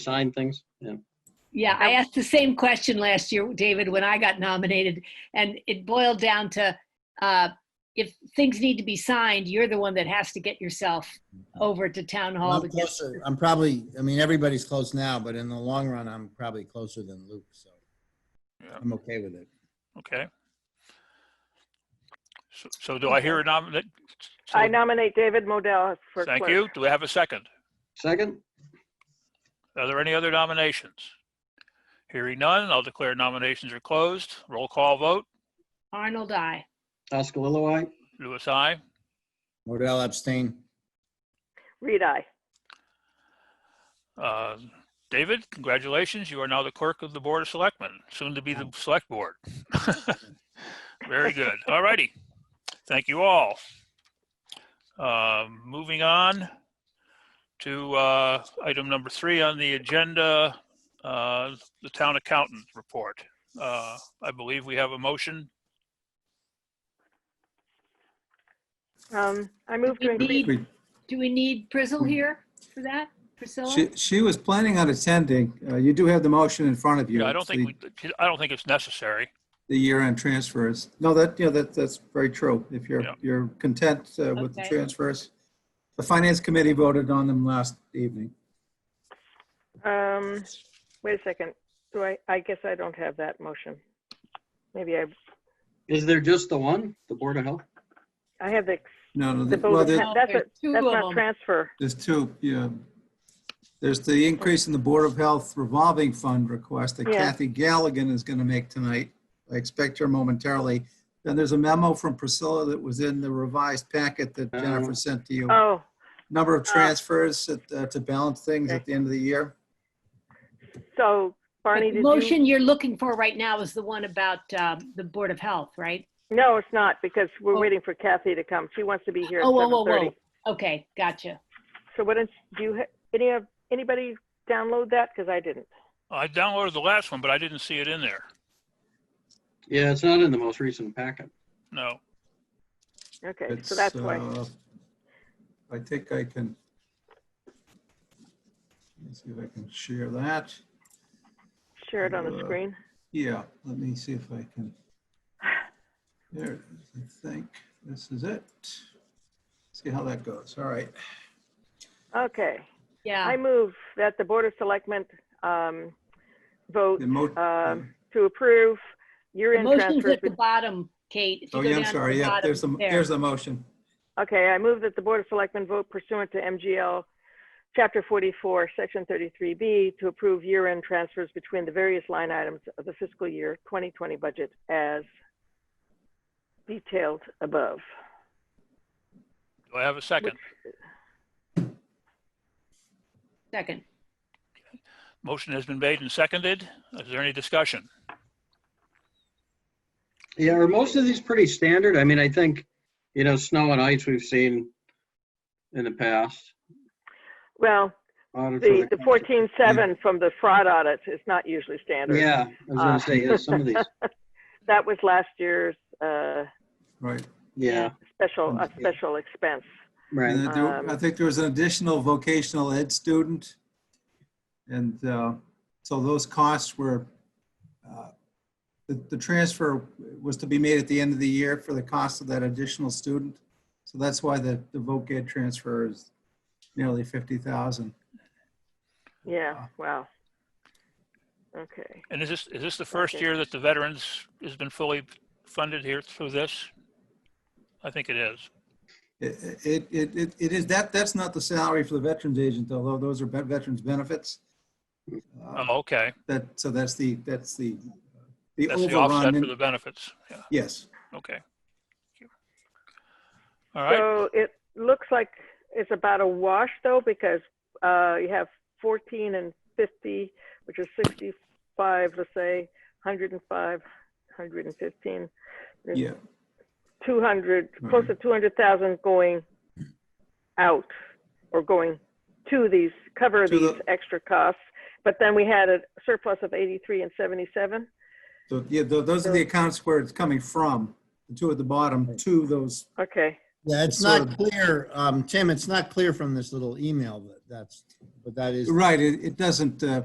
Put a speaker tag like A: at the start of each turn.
A: sign things? Yeah.
B: Yeah, I asked the same question last year, David, when I got nominated, and it boiled down to uh, if things need to be signed, you're the one that has to get yourself over to town hall
C: I'm
B: to get.
C: closer. I'm probably, I mean, everybody's close now, but in the long run, I'm probably closer than Luke, so
D: Yeah.
C: I'm okay with it.
D: Okay. So- So do I hear a nomination?
E: I nominate David Modell for clerk.
D: Thank you. Do we have a second?
A: Second?
D: Are there any other nominations? Hearing none, I'll declare nominations are closed. Roll call vote.
B: Arnold, I.
A: Oscar I.
D: Louis, I.
C: Modell abstain.
E: Reed, aye.
D: Uh, David, congratulations. You are now the clerk of the Board of Selectmen, soon to be the Select Board. Very good. All righty. Thank you all. Um, Moving on to uh, item number three on the agenda, uh, the Town Accountant Report. Uh, I believe we have a motion.
E: Um, I move to
B: We
E: increase,
B: need, do we need Prizzle here for that? Priscilla?
F: Mm-hmm. She, she was planning on attending. Uh, You do have the motion in front of you.
D: Yeah, I don't
F: It's
D: think,
F: the-
D: we- I don't think it's necessary.
F: The year-end transfers. No, that, yeah, that, that's very true. If you're,
D: Yeah.
F: you're content uh, with the
B: Okay.
F: transfers. The finance committee voted on them last evening.
E: um, wait a second. Do I, I guess I don't have that motion. Maybe I,
A: Is there just the one, the Board of Health?
E: I have the,
F: No, no,
E: the
F: the-
E: vote
F: well,
E: of,
F: there-
E: tran- that's,
B: There's
E: a-
B: two
E: that's
B: of
E: not
B: them.
E: transfer.
F: there's two, yeah. There's the increase in the Board of Health revolving fund request that
E: Yeah.
F: Kathy Galligan is going to make tonight. I expect her momentarily. Then there's a memo from Priscilla that was in the revised packet that
A: Oh.
F: Jennifer sent to you.
E: Uh-huh. Oh,
F: number of transfers at, uh, to balance things at the end of the year.
E: so Barney,
B: The
E: did you?
B: motion you're looking for right now is the one about um, the Board of Health, right?
E: No, it's not, because we're
B: Oh.
E: waiting for Kathy to come. She wants to be here at
B: Oh, whoa, whoa,
E: 7:30.
B: whoa. Okay, gotcha.
E: So what, is- do you, ha- any of, anybody download that? Because I didn't.
D: I downloaded the last one, but I didn't see it in there.
A: Yeah, it's not in the most recent packet.
D: No.
E: Okay,
F: It's,
E: so that's why.
F: uh, I think I can. Let's see if I can share that.
E: Share it on the
F: uh,
E: screen.
F: Yeah, let me see if I can. There it is, I think. This is it. See how that goes. All right.
E: Okay. I
B: Yeah,
E: move that the Board of Selectmen um, vote
F: The mo-
E: um, to approve
B: the
E: year-end
B: motion's
E: transfers.
B: at the bottom, Kate. If you
F: Oh,
B: go
F: yeah, I'm
B: down to the
F: sorry. Yeah,
B: bottom,
F: there's a,
B: there.
F: there's a motion.
E: Okay, I move that the Board of Selectmen vote pursuant to MGL Chapter 44, Section 33B, to approve year-end transfers between the various line items of the fiscal year 2020 budget as detailed above.
D: Do I have a second?
B: Second.
D: Motion has been made and seconded. Is there any discussion?
A: Yeah, are most of these pretty standard? I mean, I think, you know, snow and ice we've seen in the past.
E: Well,
A: Audit
E: the the
A: for
E: 14.7 from the fraud audit is not usually standard.
A: Yeah, I was
E: Ah.
A: gonna say, yeah, some of these,
E: That was last year's uh,
F: Right.
A: yeah,
E: special, a
F: Okay.
E: special expense.
A: right.
F: And I do- I think there was an additional vocational ed student. And uh, so those costs were, uh, the, the transfer was to be made at the end of the year for the cost of that additional student. So that's why the, the voc ed transfer is nearly 50,000.
E: Yeah, wow. Okay,
D: And is this, is this the first
E: Okay.
D: year that the veterans has been fully funded here through this? I think it is.
F: It, it, it, it- it is, that, that's not the salary for the veterans agent, although those are vet- veterans benefits. Uh,
D: Oh, okay.
F: That, so that's the, that's the, uh, the
D: That's the offset
F: overrun.
D: for
F: in-
D: the benefits. Yeah,
F: Yes.
D: okay. All right,
E: so it looks like it's about a wash though, because uh, you have 14 and 50, which is 65, let's say, 105, 115. There's
F: Yeah. Mm-hmm.
E: 200, close to 200,000 going out or going to these, cover
F: To the-
E: these extra costs. But then we had a surplus of 83 and 77.
F: So, yeah, tho- those are the accounts where it's coming from, the two at the bottom, to those
E: Okay,
C: Yeah, it's
F: It's sort
C: not
F: of-
C: clear, um, Tim, it's not clear from this little email that that's, but that is.
F: Right, it, it doesn't, uh,